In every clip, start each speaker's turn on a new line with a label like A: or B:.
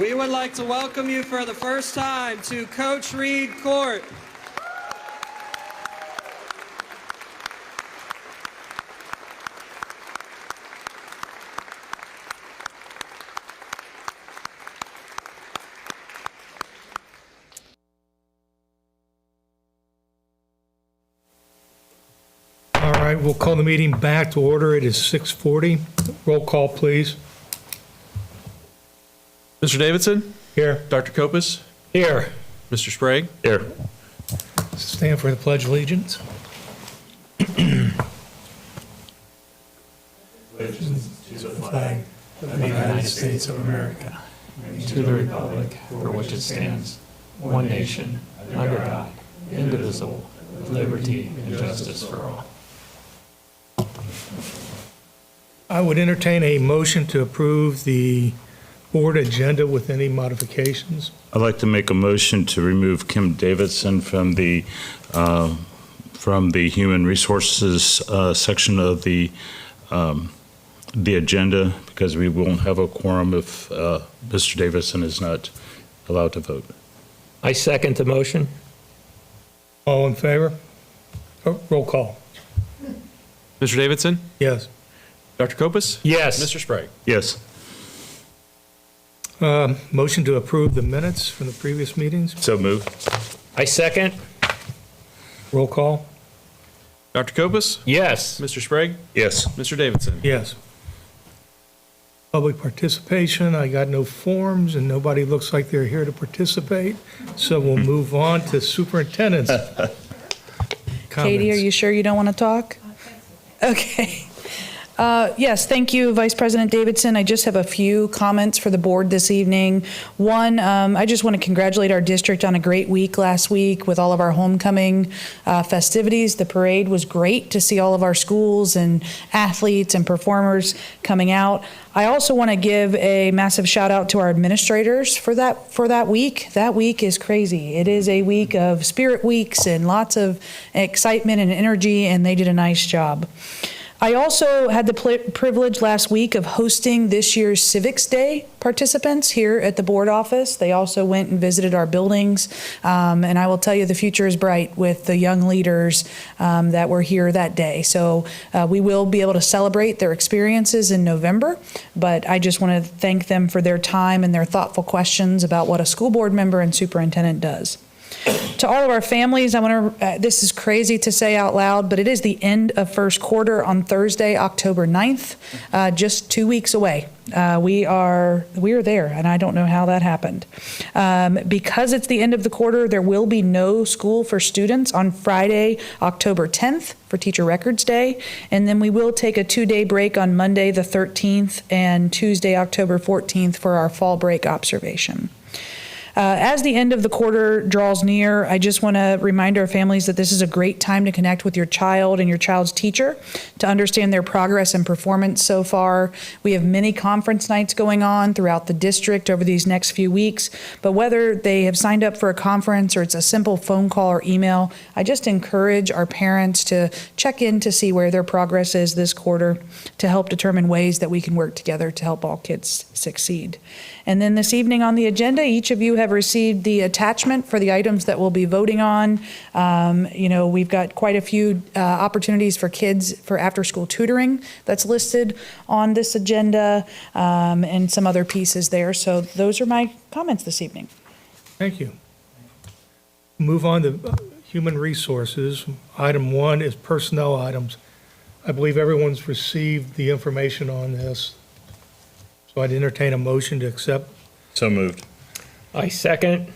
A: We would like to welcome you for the first time to Coach Reed Court.
B: All right, we'll call the meeting back to order. It is 6:40. Roll call, please.
C: Mr. Davidson,
B: Here.
C: Dr. Copus,
B: Here.
C: Mr. Sprague.
B: Stand for the pledge of allegiance.
D: to the republic for which it stands, one nation, under God, indivisible, with liberty and justice for all.
B: I would entertain a motion to approve the board agenda with any modifications.
E: I'd like to make a motion to remove Kim Davidson from the, uh, from the Human Resources uh, section of the, um, the agenda, because we won't have a quorum if uh, Mr. Davidson is not allowed to vote.
D: I second the motion.
B: All in favor? Oh, Roll call.
C: Mr. Davidson,
B: Yes.
C: Dr. Copus,
D: Yes.
C: Mr. Sprague.
E: Yes,
B: Um, Motion to approve the minutes from the previous meetings.
E: so move.
D: I second.
B: Roll call.
C: Dr. Copus,
D: Yes.
C: Mr. Sprague,
E: Yes.
C: Mr. Davidson.
B: Yes. Public participation, I got no forms, and nobody looks like they're here to participate, so we'll move on to superintendent's
F: Katie, are
B: comments.
F: you sure you don't want to talk? Okay. Uh, Yes, thank you, Vice President Davidson. I just have a few comments for the board this evening. One, um, I just want to congratulate our district on a great week last week with all of our homecoming uh, festivities. The parade was great to see all of our schools and athletes and performers coming out. I also want to give a massive shout out to our administrators for that for that week. That week is crazy. It is a week of spirit weeks and lots of excitement and energy, and they did a nice job. I also had the pl- privilege last week of hosting this year's Civics Day participants here at the board office. They also went and visited our buildings. Um, and I will tell you, the future is bright with the young leaders um, that were here that day. So uh, we will be able to celebrate their experiences in November. But I just want to thank them for their time and their thoughtful questions about what a school board member and superintendent does to all of our families, I want to, uh, this is crazy to say out loud, but it is the end of first quarter on Thursday, October 9th, uh, just two weeks away. Uh, we are, we are there, and I don't know how that happened. Um, because it's the end of the quarter, there will be no school for students on Friday, October 10th for Teacher Records Day. And then we will take a two day break on Monday, the 13th, and Tuesday, October 14th for our fall break observation. Uh, as the end of the quarter draws near, I just want to remind our families that this is a great time to connect with your child and your child's teacher to understand their progress and performance so far. We have many conference nights going on throughout the district over these next few weeks, but whether they have signed up for a conference or it's a simple phone call or email, I just encourage our parents to check in to see where their progress is this quarter to help determine ways that we can work together to help all kids succeed. And then this evening on the agenda, each of you have received the attachment for the items that we'll be voting on. Um, You know, we've got quite a few uh, opportunities for kids for after-school tutoring that's listed on this agenda um, and some other pieces there. So those are my comments this evening.
B: Thank you. Move on to uh, human resources. Item one is personnel items. I believe everyone's received the information on this, so I'd entertain a motion to accept.
E: So moved.
D: I second.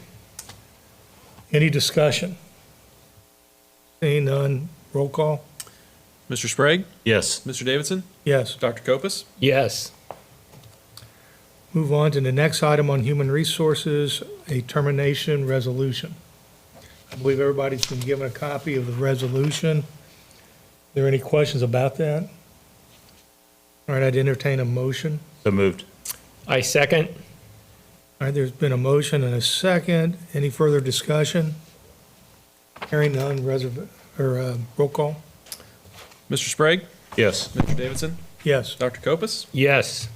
B: Any discussion? Seeing none, roll call.
C: Mr. Sprague,
E: Yes.
C: Mr. Davidson,
B: Yes.
C: Dr. Copus,
D: Yes.
B: Move on to the next item on human resources, a termination resolution. I believe everybody's been given a copy of the resolution. Are there any questions about that? All right, I'd entertain a motion.
E: So moved.
D: I second.
B: All right, there's been a motion and a second. Any further discussion? Hearing none, reserv, or, uh, roll call?
C: Mr. Sprague,
E: Yes.
C: Mr. Davidson,
B: Yes.
C: Dr. Copus,
D: Yes.